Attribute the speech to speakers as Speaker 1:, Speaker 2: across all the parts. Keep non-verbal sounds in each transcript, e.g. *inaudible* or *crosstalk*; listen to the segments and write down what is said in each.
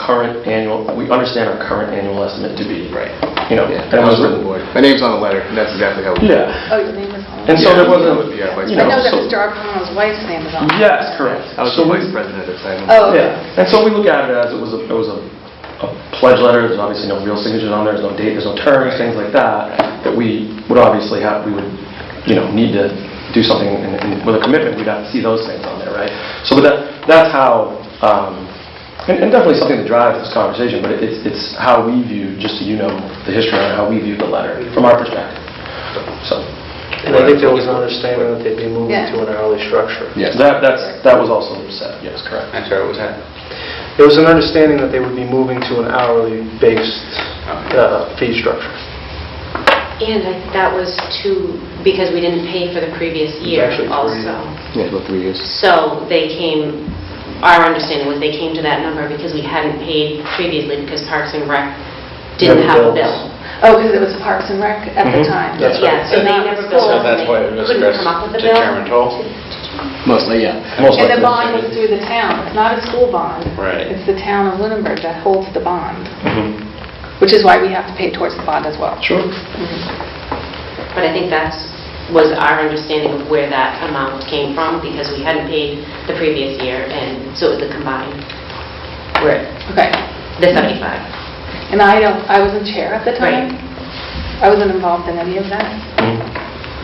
Speaker 1: current annual, we understand our current annual estimate to be.
Speaker 2: Right.
Speaker 1: You know,
Speaker 2: Yeah,
Speaker 1: that was written.
Speaker 2: My name's on the letter, and that's exactly how. we-
Speaker 1: Yeah.
Speaker 3: Oh, your name is on
Speaker 1: And
Speaker 3: it.
Speaker 1: so there wasn't,
Speaker 2: Yeah, vice
Speaker 1: you
Speaker 3: I know that
Speaker 1: so-
Speaker 3: Mr. Arpaio's wife's name is on it.
Speaker 1: yes, correct.
Speaker 2: I was
Speaker 1: So
Speaker 2: the
Speaker 1: we-
Speaker 2: vice president at the time.
Speaker 3: Oh, okay.
Speaker 1: Yeah, and so we look at it as it was, a it was a a pledge letter, there's obviously no real signatures on there, there's no date, there's no terms, things like that, that we would obviously have, we would, you know, need to do something and- and with a commitment, we'd have to see those things on there, right? So but that, that's how, um, and and definitely something that drives this conversation, but it's, it's how we view, just so you know, the history on how we view the letter, from our perspective, so.
Speaker 4: And I think there was an understanding that they'd be moving
Speaker 3: Yeah.
Speaker 4: to an hourly structure.
Speaker 2: Yes.
Speaker 1: That, that's, that was also said, yes, correct.
Speaker 5: I'm sorry, what was that?
Speaker 4: There was an understanding that they would be moving to an hourly-based uh, fee structure.
Speaker 6: And I- that was to, because we didn't pay for the previous year
Speaker 4: actually three.
Speaker 6: also.
Speaker 2: Yeah, about three years.
Speaker 6: So they came, our understanding was they came to that number because we hadn't paid previously because Parks and Rec didn't
Speaker 4: Never
Speaker 6: have a
Speaker 4: billed.
Speaker 6: bill.
Speaker 3: Oh, because it was Parks and Rec at the
Speaker 1: Mhm.
Speaker 3: time.
Speaker 4: That's right.
Speaker 6: Yeah, so they never billed
Speaker 5: So
Speaker 6: us. and
Speaker 5: that's
Speaker 6: they
Speaker 5: why it was
Speaker 6: Couldn't come up with a bill.
Speaker 5: determined toll?
Speaker 2: Mostly, yeah.
Speaker 1: Most
Speaker 3: And the
Speaker 1: likely.
Speaker 3: bond was through the town, it's not a school bond.
Speaker 5: Right.
Speaker 3: It's the town of Lunenburg that holds the bond,
Speaker 1: Mhm.
Speaker 3: which is why we have to pay towards the bond as well.
Speaker 1: Sure.
Speaker 6: But I think that's, was our understanding of where that amount came from because we hadn't paid the previous year and so it was the combined, where,
Speaker 3: Okay.
Speaker 6: the 75.
Speaker 3: And I don't, I wasn't chair at the time. I wasn't involved in any of that.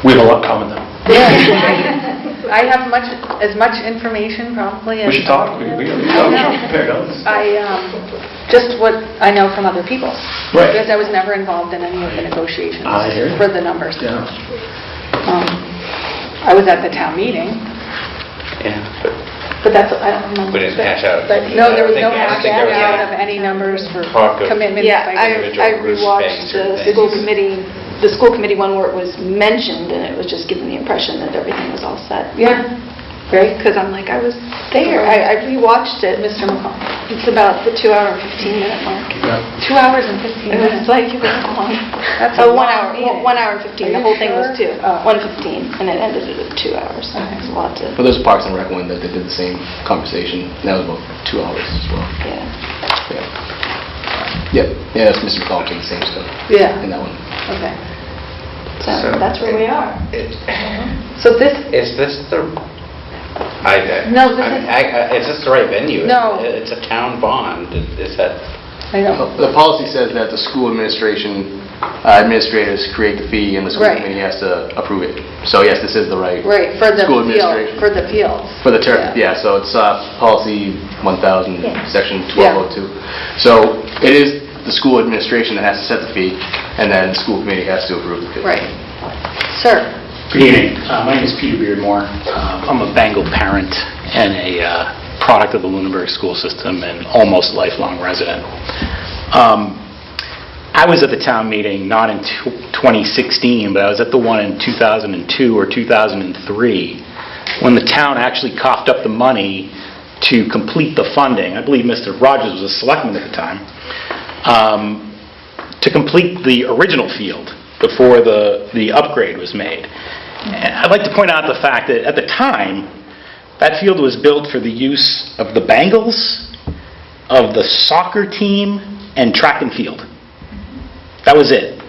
Speaker 1: We have a lot in common, though.
Speaker 6: *laughs*
Speaker 3: I have much, as much information probably as...
Speaker 1: We should talk. We we- we- we
Speaker 3: I know.
Speaker 1: should compare notes.
Speaker 3: I, um, just what I know from other people.
Speaker 1: Right. Ah,
Speaker 3: Because I was never involved in any of the negotiations
Speaker 1: I hear you.
Speaker 3: for the numbers.
Speaker 1: Yeah.
Speaker 3: Um, I was at the town meeting,
Speaker 5: Yeah, but
Speaker 3: but that's, I don't remember.
Speaker 5: We didn't hash out. uh,
Speaker 3: But No, there was
Speaker 5: I
Speaker 3: no
Speaker 5: don't
Speaker 3: hash
Speaker 5: think- I don't think there was
Speaker 3: out
Speaker 5: any
Speaker 3: of any numbers for
Speaker 5: talk of-
Speaker 3: commitments.
Speaker 7: Yeah,
Speaker 3: by
Speaker 7: I
Speaker 5: individual
Speaker 7: I
Speaker 5: groups,
Speaker 7: rewatched
Speaker 5: banks, or
Speaker 7: the
Speaker 5: things.
Speaker 7: school committee, the school committee one where it was mentioned, and it was just giving the impression that everything was all set.
Speaker 3: Yeah, right,
Speaker 7: Because I'm like, I was there, I I rewatched it.
Speaker 3: Mr. McCall.
Speaker 7: It's about the two hour and 15 minute mark.
Speaker 3: Two hours and 15
Speaker 7: It was
Speaker 3: minutes.
Speaker 7: like, it was long.
Speaker 3: That's a
Speaker 7: Oh, one
Speaker 3: long
Speaker 7: hour,
Speaker 3: meeting.
Speaker 7: one hour and
Speaker 3: Are
Speaker 7: 15, the
Speaker 3: you
Speaker 7: whole thing was
Speaker 3: sure?
Speaker 7: two,
Speaker 3: Oh.
Speaker 7: 1:15, and it ended at two hours, so it was a lot to,
Speaker 2: But there's a Parks and Rec one that they did the same conversation, and that was about two hours as well.
Speaker 7: yeah.
Speaker 2: Yeah. Yep, yeah, that's Mr. McCall doing the same stuff in
Speaker 3: Yeah,
Speaker 2: that one.
Speaker 3: okay.
Speaker 7: So
Speaker 5: So-
Speaker 7: that's where we are.
Speaker 3: So this,
Speaker 5: Is this the, I, I-
Speaker 3: No, this
Speaker 5: I mean,
Speaker 3: is-
Speaker 5: I- I- is this the right venue?
Speaker 3: No.
Speaker 5: It- It's a town bond, Is- is that,
Speaker 3: I know,
Speaker 2: The policy says that the school administration, uh, administrators create the fee, and the school
Speaker 3: Right.
Speaker 2: committee has to approve it. So yes, this is the right,
Speaker 3: right, for the
Speaker 2: School
Speaker 3: field,
Speaker 2: administration.
Speaker 3: for the fields.
Speaker 2: for the turf, yeah, so it's uh, policy 1000, section 1202. So it is the school administration that has to set the fee, and then the school committee has to approve the fee.
Speaker 3: Right. Sir?
Speaker 8: Good evening. Uh, My name is Peter Beardmore. Uh, I'm a Bengal parent and a uh, product of the Lunenburg school system and almost lifelong resident. Um, I was at the town meeting, not in tw- 2016, but I was at the one in 2002 or 2003, when the town actually coughed up the money to complete the funding. I believe Mr. Rogers was a selectman at the time. Um, to complete the original field before the, the upgrade was made. And I'd like to point out the fact that at the time, that field was built for the use of the Bengals, of the soccer team, and track and field. That was it.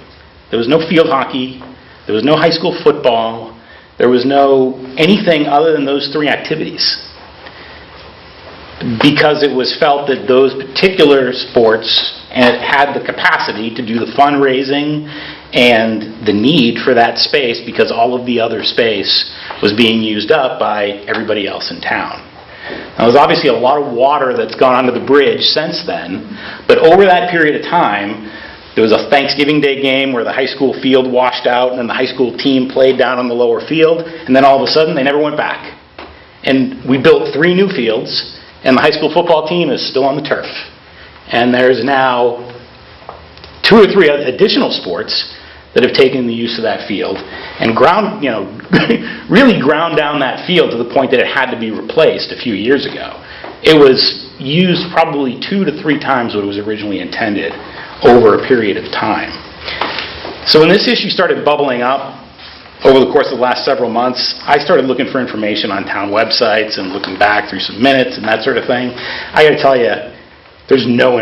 Speaker 8: There was no field hockey, there was no high school football, there was no anything other than those three activities because it was felt that those particular sports and had the capacity to do the fundraising and the need for that space because all of the other space was being used up by everybody else in town. Now, there's obviously a lot of water that's gone under the bridge since then, but over that period of time, there was a Thanksgiving Day game where the high school field washed out and then the high school team played down on the lower field, and then all of a sudden, they never went back. And we built three new fields, and the high school football team is still on the turf. And there's now two or three oth- additional sports that have taken the use of that field and ground, you know, *laughs* really ground down that field to the point that it had to be replaced a few years ago. It was used probably two to three times what it was originally intended over a period of time. So when this issue started bubbling up over the course of the last several months, I started looking for information on town websites and looking back through some minutes and that sort of thing. I got to tell you, there's no